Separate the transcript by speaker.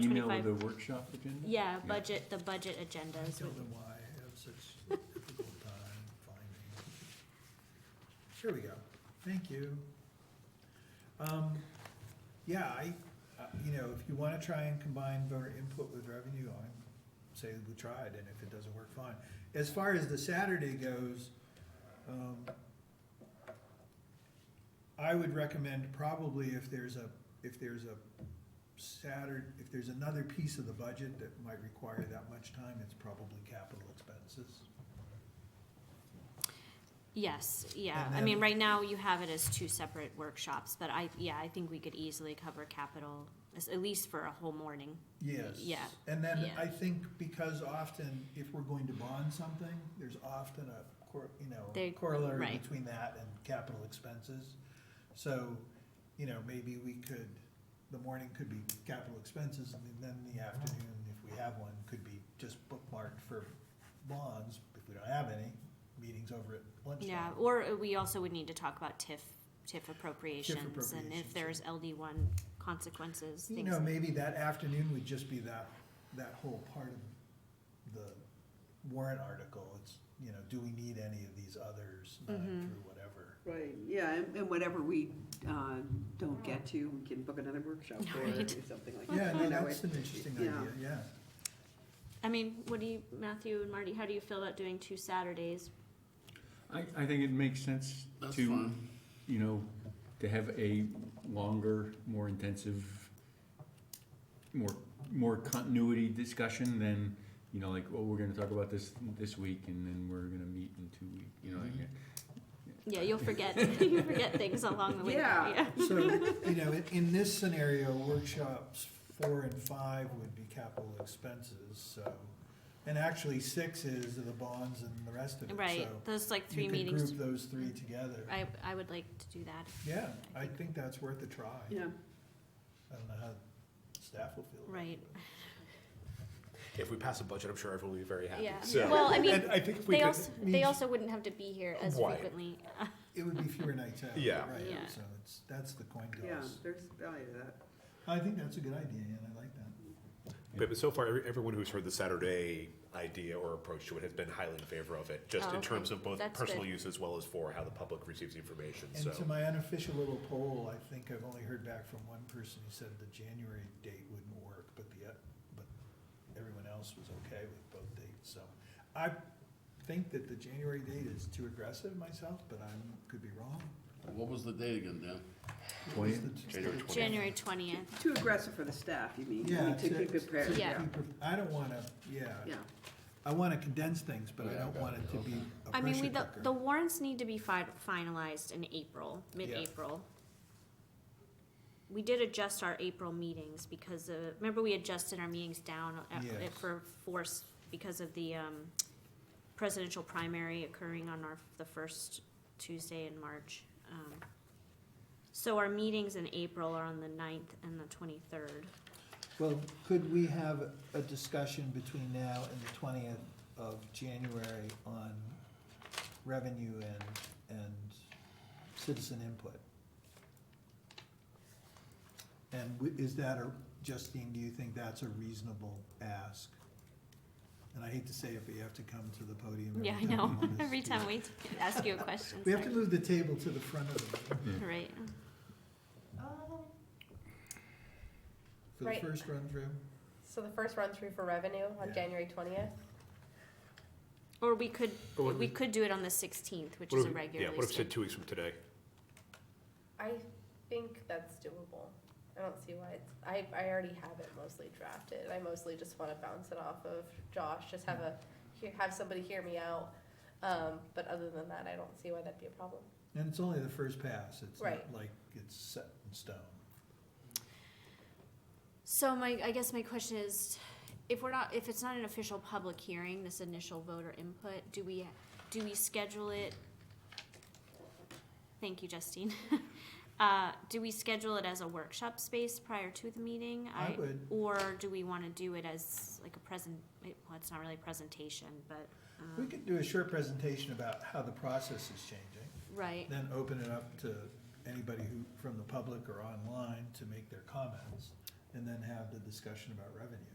Speaker 1: email with
Speaker 2: 25.
Speaker 1: the workshop agenda?
Speaker 2: Yeah, budget, the budget
Speaker 3: I
Speaker 2: agendas.
Speaker 3: don't know why I have such a difficult time finding. Here we go, thank you. Um, yeah, I, uh, you know, if you wanna try and combine voter input with revenue, I'm, say we tried, and if it doesn't work, fine. As far as the Saturday goes, um, I would recommend probably if there's a, if there's a Saturday, if there's another piece of the budget that might require that much time, it's probably capital expenses.
Speaker 2: Yes, yeah.
Speaker 3: And
Speaker 2: I mean,
Speaker 3: then-
Speaker 2: right now you have it as two separate workshops, but I, yeah, I think we could easily cover capital, as- at least for a whole morning.
Speaker 3: Yes.
Speaker 2: Yeah,
Speaker 3: And then
Speaker 2: yeah.
Speaker 3: I think because often, if we're going to bond something, there's often a cor, you know,
Speaker 2: They-
Speaker 3: corollary
Speaker 2: right.
Speaker 3: between that and capital expenses. So, you know, maybe we could, the morning could be capital expenses, and then the afternoon, if we have one, could be just bookmarked for bonds, if we don't have any, meetings over at lunchtime.
Speaker 2: Yeah, or we also would need to talk about TIF, TIF appropriations and
Speaker 3: appropriations,
Speaker 2: if there's LD one consequences,
Speaker 3: You
Speaker 2: things.
Speaker 3: know, maybe that afternoon would just be that, that whole part of the warrant article, it's, you know, do we need any of these others, nine
Speaker 2: Mhm.
Speaker 3: through whatever.
Speaker 4: Right, yeah, and, and whatever we, uh, don't get to, we can book another workshop for it or
Speaker 2: Right.
Speaker 4: do something like
Speaker 3: Yeah,
Speaker 4: that.
Speaker 3: no,
Speaker 4: you know,
Speaker 3: that's
Speaker 4: it-
Speaker 3: an interesting idea,
Speaker 4: yeah.
Speaker 3: yeah.
Speaker 2: I mean, what do you, Matthew and Marty, how do you feel about doing two Saturdays?
Speaker 1: I, I think it makes sense
Speaker 5: That's
Speaker 1: to,
Speaker 5: fine.
Speaker 1: you know, to have a longer, more intensive, more, more continuity discussion than, you know, like, oh, we're gonna talk about this this week and then we're gonna meet in two weeks, you know, like,
Speaker 5: Mhm.
Speaker 2: Yeah, you'll forget, you forget things along the way.
Speaker 4: Yeah.
Speaker 3: So, you know, in, in this scenario, workshops four and five would be capital expenses, so. And actually, six is the bonds and the rest of it, so.
Speaker 2: Right, those like three
Speaker 3: You could
Speaker 2: meetings, Mm-hmm.
Speaker 3: group those three together.
Speaker 2: I, I would like to do that,
Speaker 3: Yeah, I think that's worth a try.
Speaker 4: Yeah,
Speaker 3: I don't know how staff will feel. about it.
Speaker 2: right?
Speaker 5: If we pass a budget, I'm sure everyone will be very happy.
Speaker 2: Yeah.
Speaker 5: So-
Speaker 2: Well, I mean,
Speaker 5: And I think if we
Speaker 2: They
Speaker 5: could-
Speaker 2: also, they also wouldn't have to be here as
Speaker 5: Why?
Speaker 2: frequently. uh,
Speaker 3: It would be fewer nights out.
Speaker 5: Yeah.
Speaker 3: Right,
Speaker 2: Yeah.
Speaker 3: so it's, that's the coin
Speaker 4: yeah,
Speaker 3: toss.
Speaker 4: there's value to that.
Speaker 3: I think that's a good idea, and I like that.
Speaker 5: But but so far, every- everyone who's heard the Saturday idea or approach to it has been highly in favor of it,
Speaker 2: Oh,
Speaker 5: just in
Speaker 2: okay.
Speaker 5: terms of both
Speaker 2: That's
Speaker 5: personal
Speaker 2: good.
Speaker 5: use as well as for how the public receives the information,
Speaker 3: And to
Speaker 5: so.
Speaker 3: my unofficial little poll, I think I've only heard back from one person who said the January date wouldn't work, but the, uh, but everyone else was okay with both dates, so. I think that the January date is too aggressive myself, but I could be wrong.
Speaker 6: What was the date again, Dan?
Speaker 1: Twenty-
Speaker 5: January
Speaker 3: It's the-
Speaker 5: 20th.
Speaker 2: January twentieth,
Speaker 4: Too aggressive for the staff, you mean,
Speaker 3: Yeah.
Speaker 4: to keep it
Speaker 3: to
Speaker 4: prepared, yeah,
Speaker 3: keep it- I don't wanna, yeah.
Speaker 4: yeah.
Speaker 3: I wanna condense things, but I
Speaker 6: Yeah,
Speaker 3: don't
Speaker 6: got
Speaker 3: want
Speaker 6: it,
Speaker 3: it to be
Speaker 6: okay.
Speaker 3: a
Speaker 2: I mean, we,
Speaker 3: pressure
Speaker 2: the,
Speaker 3: cooker.
Speaker 2: the warrants need to be fi- finalized in April, mid-April. We did adjust our April meetings because of, remember we adjusted our meetings down at-
Speaker 3: Yes.
Speaker 2: at- for force because of the, um, presidential primary occurring on our, the first Tuesday in March. Um, So our meetings in April are on the ninth and the twenty-third.
Speaker 3: Well, could we have a discussion between now and the twentieth of January on revenue and, and citizen input? And wi- is that a, Justine, do you think that's a reasonable ask? And I hate to say it, but you have to come to the podium every
Speaker 2: Yeah,
Speaker 3: time.
Speaker 2: I know,
Speaker 3: we want this
Speaker 2: every
Speaker 3: to-
Speaker 2: time we t- ask you a question.
Speaker 3: We have to move the table to the front of the, room
Speaker 1: Yeah.
Speaker 2: Right,
Speaker 3: for the
Speaker 7: Right.
Speaker 3: first run through.
Speaker 7: So the first run through for revenue
Speaker 3: Yeah.
Speaker 7: on January twentieth?
Speaker 2: or we could,
Speaker 5: Or what
Speaker 2: we
Speaker 5: if-
Speaker 2: could do it on the sixteenth, which
Speaker 5: what
Speaker 2: is a
Speaker 5: if-
Speaker 2: regularly
Speaker 5: Yeah, what if
Speaker 2: scheduled-
Speaker 5: we said two weeks from today?
Speaker 7: I think that's doable. I don't see why it's, I, I already have it mostly drafted. I mostly just wanna bounce it off of Josh, just have a, hear- have somebody hear me out. Um, but other than that, I don't see why that'd be a problem.
Speaker 3: And it's only the first pass, it's not
Speaker 7: Right.
Speaker 3: like it's set in stone.
Speaker 2: So my, I guess my question is, if we're not, if it's not an official public hearing, this initial voter input, do we, do we schedule it? Thank you, Justine. Uh, do we schedule it as a workshop space prior to the meeting?
Speaker 3: I would.
Speaker 2: Or do we wanna do it as like a present, well, it's not really a presentation, but,
Speaker 3: We
Speaker 2: um,
Speaker 3: could do a short presentation about how the process is changing,
Speaker 2: right,
Speaker 3: then open it up to anybody who, from the public or online to make their comments. and then have the discussion about revenue.